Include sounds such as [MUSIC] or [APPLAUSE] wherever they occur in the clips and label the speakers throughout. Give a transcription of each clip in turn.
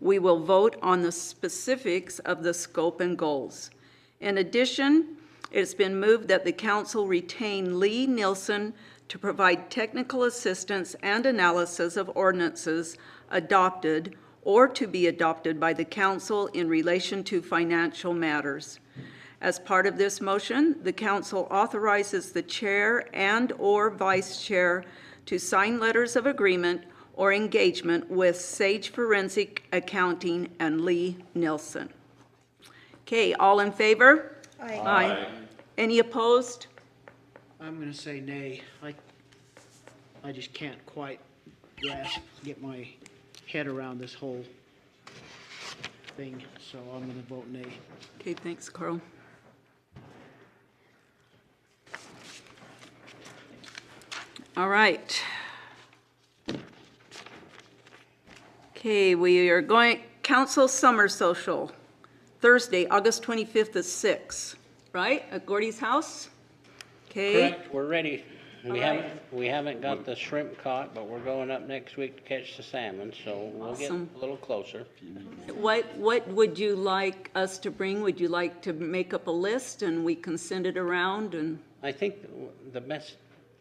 Speaker 1: We will vote on the specifics of the scope and goals. In addition, it's been moved that the council retain Lee Nielsen to provide technical assistance and analysis of ordinances adopted or to be adopted by the council in relation to financial matters. As part of this motion, the council authorizes the chair and/or vice chair to sign letters of agreement or engagement with Sage Forensic Accounting and Lee Nelson. Okay, all in favor? Aye. Any opposed?
Speaker 2: I'm gonna say nay. I, I just can't quite grasp, get my head around this whole thing, so I'm gonna vote nay.
Speaker 1: Okay, thanks, Carl. All right. Okay, we are going, council summer social, Thursday, August 25th at six, right? At Gordy's house? Okay.
Speaker 3: Correct, we're ready. We
Speaker 1: All
Speaker 3: haven't, we haven't got the shrimp caught, but we're going up next week to catch the salmon, so we'll get a
Speaker 1: Awesome.
Speaker 3: little closer.
Speaker 1: What, what would you like us to bring? Would you like to make up a list and we can send it around and?
Speaker 3: I think w- the best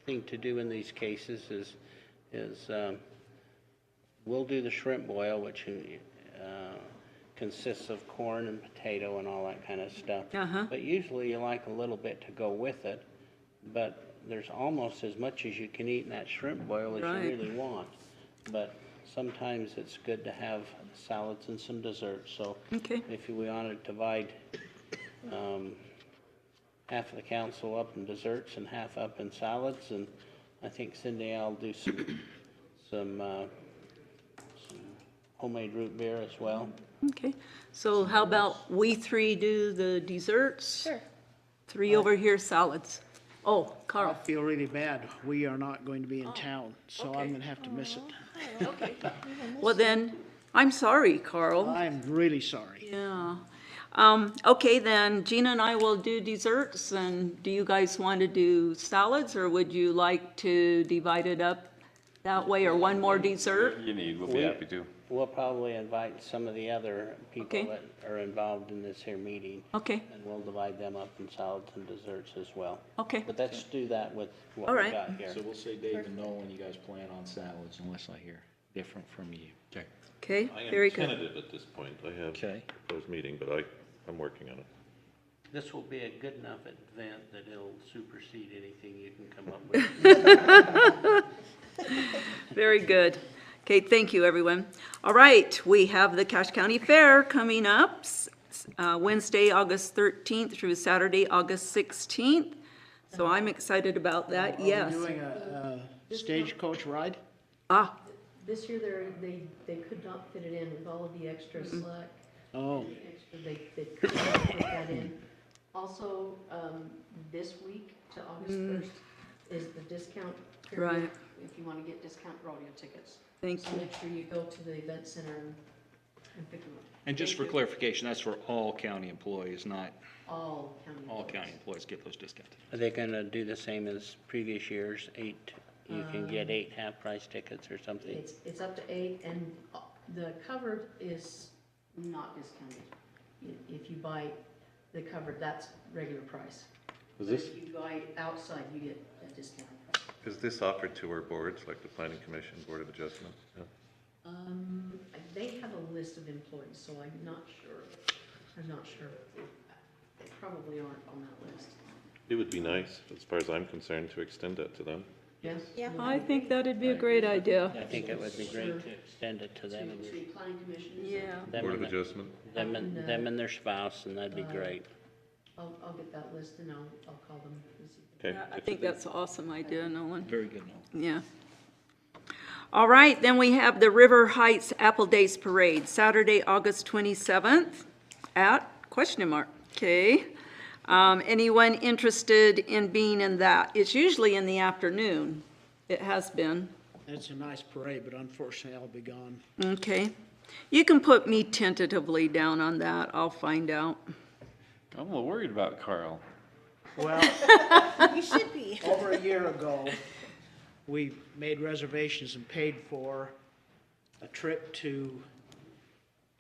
Speaker 3: thing to do in these cases is, is, um, we'll do the shrimp boil, which, uh, consists of corn and potato and all that kind of stuff.
Speaker 1: Uh-huh.
Speaker 3: But usually you like a little bit to go with it, but there's almost as much as you can eat in that shrimp boil as
Speaker 1: Right.
Speaker 3: you really want. But sometimes it's good to have salads and some desserts, so.
Speaker 1: Okay.
Speaker 3: If we want to divide, um, half of the council up in desserts and half up in salads, and I think Cindy, I'll do some, some, uh, some homemade root beer as well.
Speaker 1: Okay, so how about we three do the desserts? Sure. Three over here salads. Oh,
Speaker 2: I
Speaker 1: Carl,
Speaker 2: feel really bad. We are not going to be in town, so
Speaker 1: Oh, okay.
Speaker 2: I'm gonna have to miss it.
Speaker 1: well then, I'm sorry, Carl.
Speaker 2: I'm really sorry.
Speaker 1: Yeah. Um, okay, then Gina and I will do desserts, and do you guys want to do salads, or would you like to divide it up that way, or one more dessert?
Speaker 4: You need, we'll be happy to.
Speaker 3: We'll probably invite some of the other people
Speaker 1: Okay.
Speaker 3: that are involved in this here meeting,
Speaker 1: Okay,
Speaker 3: and we'll divide them up in salads and desserts as well.
Speaker 1: okay,
Speaker 3: But let's do that with what
Speaker 1: All
Speaker 3: we
Speaker 1: right.
Speaker 3: got here.
Speaker 5: So we'll say Dave and Noel when you guys plan on salads unless I hear different from you. Okay.
Speaker 1: okay,
Speaker 6: I
Speaker 1: very
Speaker 6: am
Speaker 1: good.
Speaker 6: tentative at this point. I have
Speaker 5: Okay.
Speaker 6: a proposed meeting, but I, I'm working on it.
Speaker 3: This will be a good enough event that it'll supersede anything you can come up with.
Speaker 1: Very good. Okay, thank you, everyone. All right, we have the Cache County Fair coming up, s- s- uh, Wednesday, August 13th through Saturday, August 16th. So I'm excited about that, yes.
Speaker 2: Are we doing a, a stagecoach ride?
Speaker 1: Ah,
Speaker 7: This year, they're, they, they could not fit it in with all of the extra slack,
Speaker 2: Oh,
Speaker 7: extra, they, they could not put that in. Also, um, this week to August first is the discount period.
Speaker 1: Mm. Right.
Speaker 7: If you wanna get discount rodeo tickets.
Speaker 1: thank
Speaker 7: So
Speaker 1: you.
Speaker 7: make sure you go to the event center and, and pick them up.
Speaker 5: And just for clarification, that's for all county employees, not
Speaker 7: All county.
Speaker 5: all
Speaker 7: employees.
Speaker 5: county employees get those discounted.
Speaker 3: Are they gonna do the same as previous years, eight, you can get eight half-price tickets or something?
Speaker 7: It's, it's up to eight, and uh, the covered is not discounted. I- If you buy the covered, that's regular price.
Speaker 6: Is
Speaker 7: But
Speaker 6: this,
Speaker 7: If you buy outside, you get a discount.
Speaker 6: is this offered to our boards, like the planning commission, board of adjustment? Yeah.
Speaker 7: Um, they have a list of employees, so I'm not sure, I'm not sure. They probably aren't on that list.
Speaker 6: It would be nice, as far as I'm concerned, to extend that to them.
Speaker 7: Yes?
Speaker 1: I think that'd be a great idea.
Speaker 3: I think it would be great to extend it to
Speaker 7: To,
Speaker 3: them and their-
Speaker 7: to planning commission. is it?
Speaker 1: Yeah,
Speaker 3: them
Speaker 6: Board
Speaker 3: and,
Speaker 6: of
Speaker 3: their-
Speaker 6: adjustment,
Speaker 3: them and, them and their spouse, and that'd be great.
Speaker 7: I'll, I'll get that list and I'll, I'll call them and see.
Speaker 6: okay.
Speaker 1: I think that's an awesome idea, Nolan.
Speaker 5: Very good, Noel.
Speaker 1: Yeah. All right, then we have the River Heights Apple Days Parade, Saturday, August 27th at question mark, okay? Um, Anyone interested in being in that? It's usually in the afternoon. It has been,
Speaker 2: that's a nice parade, but unfortunately I'll be gone.
Speaker 1: okay? You can put me tentatively down on that. I'll find out.
Speaker 4: I'm a little worried about Carl.
Speaker 2: Well. [LAUGHS] You should be. Over a year ago, we made reservations and paid for a trip to